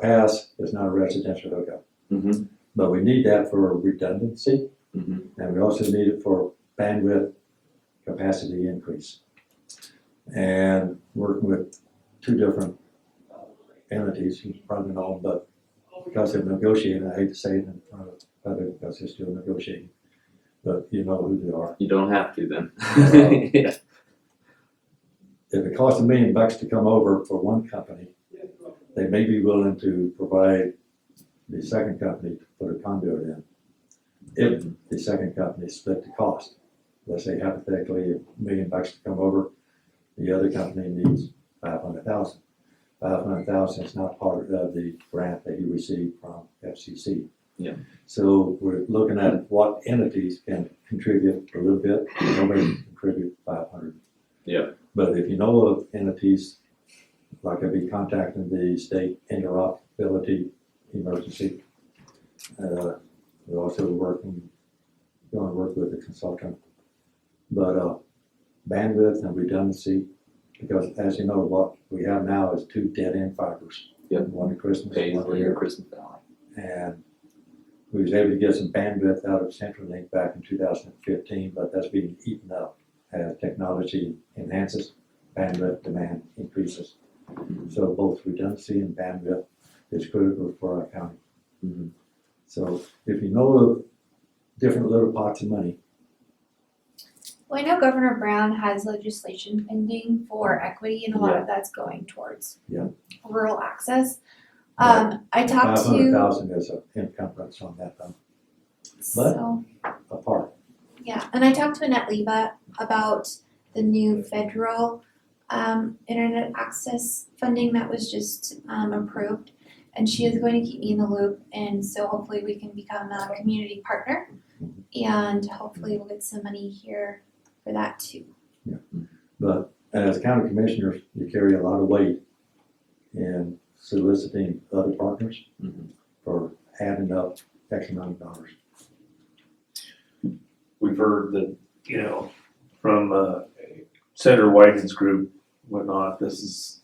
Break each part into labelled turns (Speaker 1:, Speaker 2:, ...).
Speaker 1: Pass is not a residential hookup,
Speaker 2: Mm-hmm.
Speaker 1: but we need that for redundancy.
Speaker 2: Mhm.
Speaker 1: And we also need it for bandwidth capacity increase. And working with two different entities, who's running on, but because they're negotiating, I hate to say it in front of others, because they're still negotiating. But you know who they are.
Speaker 2: You don't have to then. yeah.
Speaker 1: If it costs a million bucks to come over for one company, they may be willing to provide the second company to put a conduit in. If the second company split the cost, let's say hypothetically, a million bucks to come over, the other company needs five hundred thousand. Five hundred thousand is not part of the grant that you received from FCC.
Speaker 2: Yeah.
Speaker 1: So we're looking at what entities can contribute a little bit, nobody can contribute five hundred.
Speaker 2: Yeah.
Speaker 1: But if you know of entities like I'd be contacting the state interoperability emergency. Uh, we're also working, going to work with a consultant. But, uh, bandwidth and redundancy, because as you know, what we have now is two dead-end fibers.
Speaker 2: Yep.
Speaker 1: One at Christmas, one
Speaker 2: Paisley
Speaker 1: here
Speaker 2: or Christmas Valley.
Speaker 1: and we was able to get some bandwidth out of CenturyLink back in two thousand and fifteen, but that's being eaten up as technology enhances, bandwidth demand increases. So both redundancy and bandwidth is critical for our county.
Speaker 2: Mhm.
Speaker 1: So if you know of different little pots of money,
Speaker 3: Well, I know Governor Brown has legislation pending for equity, and a lot of that's going towards
Speaker 1: Yeah.
Speaker 3: rural access. Um, I talked
Speaker 1: five hundred
Speaker 3: to,
Speaker 1: thousand is an encumbrance on that, um, but-
Speaker 3: so,
Speaker 1: apart.
Speaker 3: yeah, and I talked to Annette Leva about the new federal, um, internet access funding that was just, um, approved. And she is going to keep me in the loop, and so hopefully we can become a community partner. And hopefully we'll get some money here for that too.
Speaker 1: But as county commissioners, you carry a lot of weight in soliciting other partners
Speaker 2: Mhm.
Speaker 1: for adding up X amount of dollars.
Speaker 4: we've heard that, you know, from uh, Senator Wyden's group, whatnot, this is,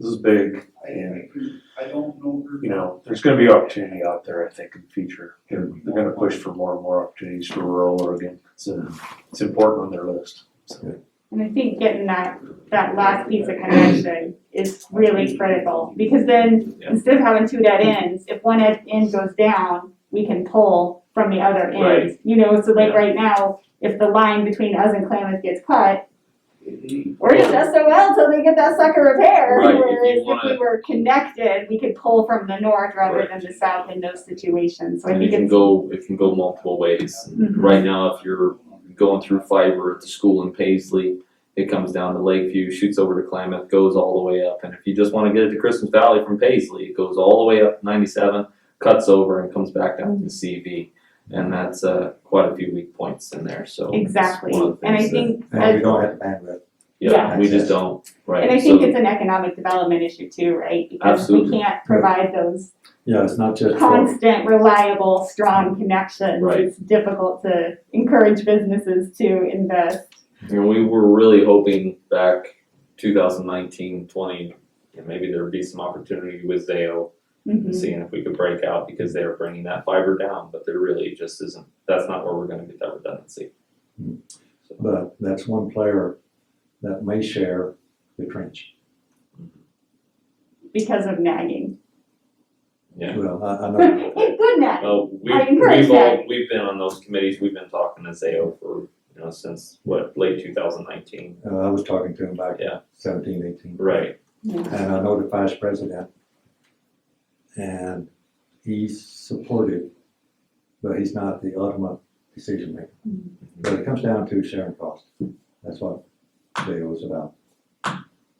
Speaker 4: this is big.
Speaker 5: I agree. I don't know. her.
Speaker 4: You know, there's gonna be opportunity out there, I think, in the future. They're, they're gonna push for more and more opportunities for rural Oregon. It's, uh, it's important on their list.
Speaker 6: And I think getting that, that last piece of connection is really critical, because then,
Speaker 2: Yeah.
Speaker 6: instead of having two dead ends, if one ed- end goes down, we can pull from the other
Speaker 2: Right.
Speaker 6: end. You know, so like
Speaker 2: Yeah.
Speaker 6: right now, if the line between us and Klamath gets cut,
Speaker 5: It-
Speaker 6: we're just SOL till they get that sucker repaired.
Speaker 2: Right, if you
Speaker 6: Whereas if
Speaker 2: wanna-
Speaker 6: we were connected, we could pull from the north rather
Speaker 2: Right.
Speaker 6: than the south in those situations, so I
Speaker 2: And it
Speaker 6: think
Speaker 2: can
Speaker 6: it's,
Speaker 2: go, it can go multiple ways.
Speaker 6: Mhm.
Speaker 2: Right now, if you're going through fiber at the school in Paisley, it comes down to Lakeview, shoots over to Klamath, goes all the way up. And if you just wanna get it to Christmas Valley from Paisley, it goes all the way up ninety-seven, cuts over and comes back down to CV. And that's, uh, quite a few weak points in there, so. it's
Speaker 6: exactly,
Speaker 2: one of the
Speaker 6: and I
Speaker 2: things that-
Speaker 6: think.
Speaker 1: And we don't have the bandwidth.
Speaker 2: Yeah,
Speaker 6: Yeah.
Speaker 2: we just don't, right?
Speaker 6: And I think
Speaker 2: So-
Speaker 6: it's an economic development issue too, right? Because we
Speaker 2: Absolutely.
Speaker 6: can't provide those
Speaker 1: Yeah, it's not just for,
Speaker 6: constant, reliable, strong connections.
Speaker 2: Mm-hmm. Right.
Speaker 6: It's difficult to encourage businesses to invest.
Speaker 2: And we were really hoping back 2019, 20, and maybe there would be some opportunity with Zayo, and
Speaker 6: Mhm.
Speaker 2: seeing if we could break out because they are bringing that fiber down, but there really just isn't. That's not where we're going to get that redundancy.
Speaker 1: Hmm.
Speaker 2: So,
Speaker 1: but that's one player that may share the trench.
Speaker 6: Because of nagging.
Speaker 2: yeah.
Speaker 1: Well, I, I know,
Speaker 6: Hey, good nagging.
Speaker 2: Well, we,
Speaker 6: I encourage
Speaker 2: we've all,
Speaker 6: that.
Speaker 2: we've been on those committees. We've been talking to Zayo for you know since what late 2019.
Speaker 1: uh, I was talking to him back
Speaker 2: Yeah.
Speaker 1: seventeen, eighteen.
Speaker 2: Right.
Speaker 1: And I know the vice president. And he's supported, but he's not the ultimate decision maker. But it comes down to sharing cost. That's what Dale was about.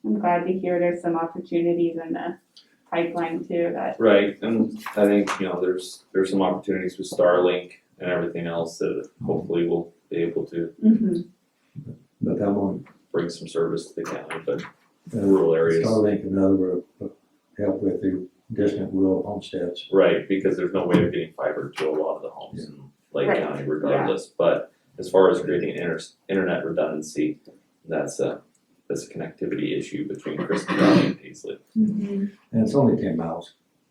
Speaker 6: I'm glad to hear there's some opportunities in the pipeline too that
Speaker 2: Right, and I think, you know, there's, there's some opportunities with Starlink and everything else that hopefully we'll be able to
Speaker 6: Mhm.
Speaker 1: But that one,
Speaker 2: bring some service to the county, but
Speaker 1: uh,
Speaker 2: rural areas.
Speaker 1: Starlink and other will help with the distant rural homesteads.
Speaker 2: Right, because there's no way of getting fiber to a lot of the homes in Lake
Speaker 6: Right,
Speaker 2: County regardless, but as far as creating inter- internet redundancy, that's a,
Speaker 6: mm-hmm.
Speaker 2: that's a connectivity issue between Crystal Valley and Paisley.
Speaker 1: And it's only ten miles.